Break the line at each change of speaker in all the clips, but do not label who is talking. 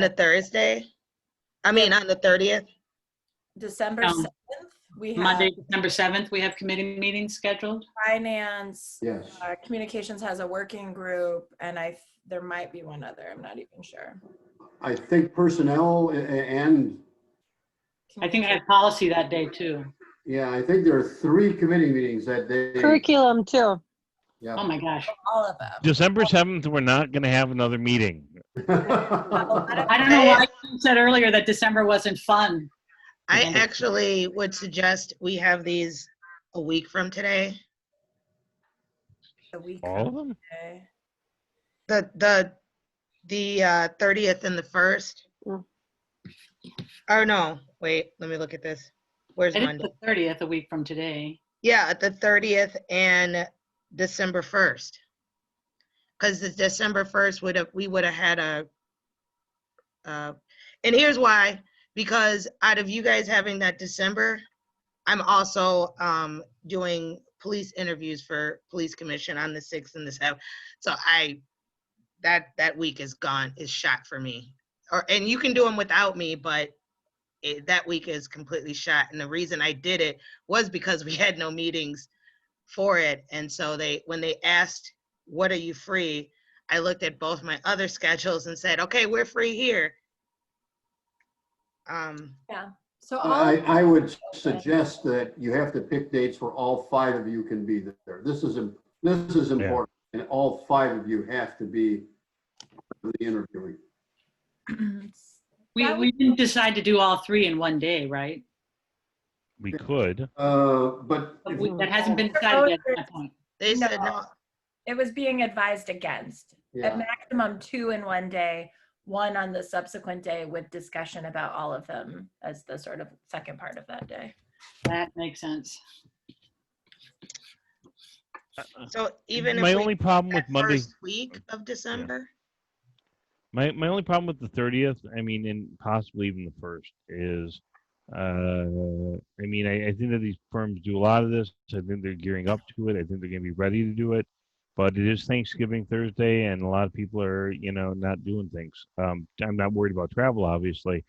the Thursday? I mean, on the thirtieth?
December
Um,
7th, we have
Monday, December 7th, we have committee meetings scheduled.
finance,
Yes.
uh, communications has a working group, and I, there might be one other, I'm not even sure.
I think personnel a- a- and,
I think I have policy that day too.
yeah, I think there are three committee meetings that day.
Curriculum too.
Oh,
Yeah.
my gosh.
All of them.
December 7th, we're not going to have another meeting.
I don't know why you said earlier that December wasn't fun.
I
Monday.
actually would suggest we have these a week from today.
The week
All of
of
them?
May.
The, the, the uh, thirtieth and the first.
Mm.
Oh, no, wait, let me look at this. Where's
It is
Monday?
the 30th, a week from today.
Yeah, the thirtieth and December first. Because the December first would have, we would have had a, uh, and here's why, because out of you guys having that December, I'm also, um, doing police interviews for police commission on the sixth and the seventh. So I, that, that week is gone, is shot for me. Or, and you can do them without me, but it, that week is completely shot. And the reason I did it was because we had no meetings for it. And so they, when they asked, what are you free? I looked at both my other schedules and said, okay, we're free here. Um,
So all,
I, I would suggest that you have to pick dates where all five of you can be there. This is, im- this is important, and all five of you have to be for the interviewing.
We,
That
we didn't decide to do all three in one day, right?
We could.
Uh, But
But
if-
we- That hasn't been decided yet at that point.
they said, no,
it was being advised against, at
yeah,
maximum two in one day, one on the subsequent day with discussion about all of them as the sort of second part of that day.
That makes sense.
so even
My
if we,
only problem with
that
Monday,
first week of December,
my, my only problem with the 30th, I mean, and possibly even the first is, uh, I mean, I, I think that these firms do a lot of this. I think they're gearing up to it. I think they're going to be ready to do it. But it is Thanksgiving Thursday, and a lot of people are, you know, not doing things. Um, I'm not worried about travel, obviously.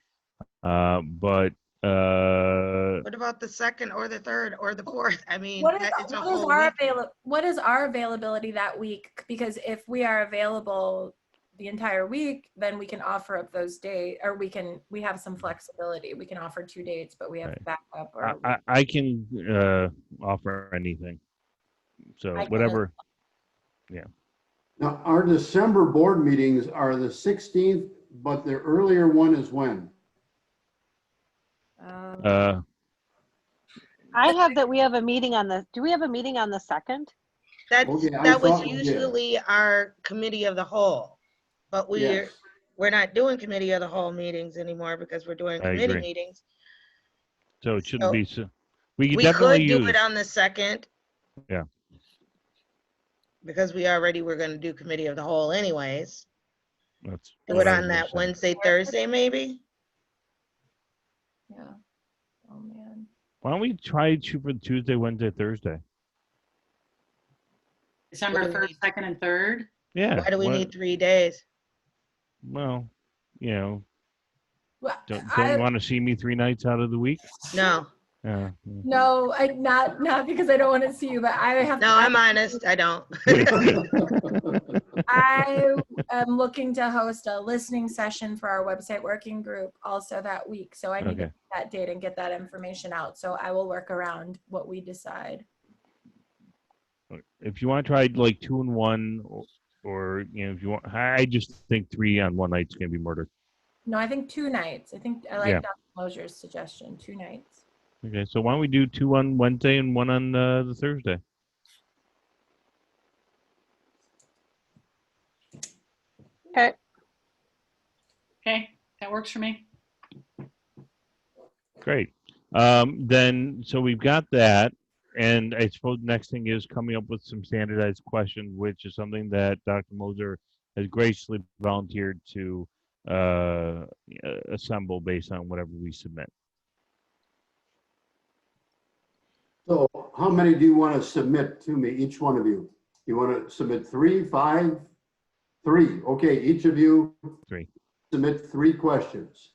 Uh, but, uh,
what about the second or the third or the fourth? I mean,
What is,
that is a
what is
whole
our
week.
avail, what is our availability that week? Because if we are available the entire week, then we can offer up those days, or we can, we have some flexibility. We can offer two dates, but we have
Mm-hmm. Right.
backup
I,
or.
I, I can uh, offer anything. So
uh,
I can-
whatever.
now, our December board meetings are the 16th, but the earlier one is when?
Um,
Uh,
I have that we have a meeting on the, do we have a meeting on the second?
That's,
Okay, I
that was
thought- Oh, yeah.
usually our committee of the whole. But we're,
Yes.
we're not doing committee of the whole meetings anymore because we're doing
I
committee
agree.
meetings.
so it shouldn't
So,
be so. We could
We could
definitely
do
use.
it on the second.
Yeah.
Because we already were gonna do committee of the whole anyways.
that's
Do
what
it
I was
on
gonna
that
say.
Wednesday, Thursday, maybe?
Yeah. Oh, man.
Why don't we try to for Tuesday, Wednesday, Thursday?
December
What do we
1st, 2nd, and 3rd.
Yeah.
Why do we
what-
need three days?
Well, you know,
Well,
don't, don't
I,
you want to see me three nights out of the week? Uh,
No,
Yeah.
no, I, not, not because I don't want to see you, but I have.
no, I'm honest, I don't.
I am looking to host a listening session for our website working group also that week. So I need to get
Okay.
that date and get that information out. So I will work around what we decide.
If you want to try like two and one, or, or you know, if you want, I I just think three on one night's gonna be murder.
No, I think two nights. I think I like
Yeah.
Dr. Mosier's suggestion, two nights.
Okay, so why don't we do two on Wednesday and one on uh, the Thursday?
Okay, that works for me.
Great. Um, then, so we've got that. And I suppose next thing is coming up with some standardized questions, which is something that Dr. Moser has graciously volunteered to uh, assemble based on whatever we submit.
So how many do you want to submit to me, each one of you? You want to submit three, five, three? Okay, each of you?
Three.
submit three questions.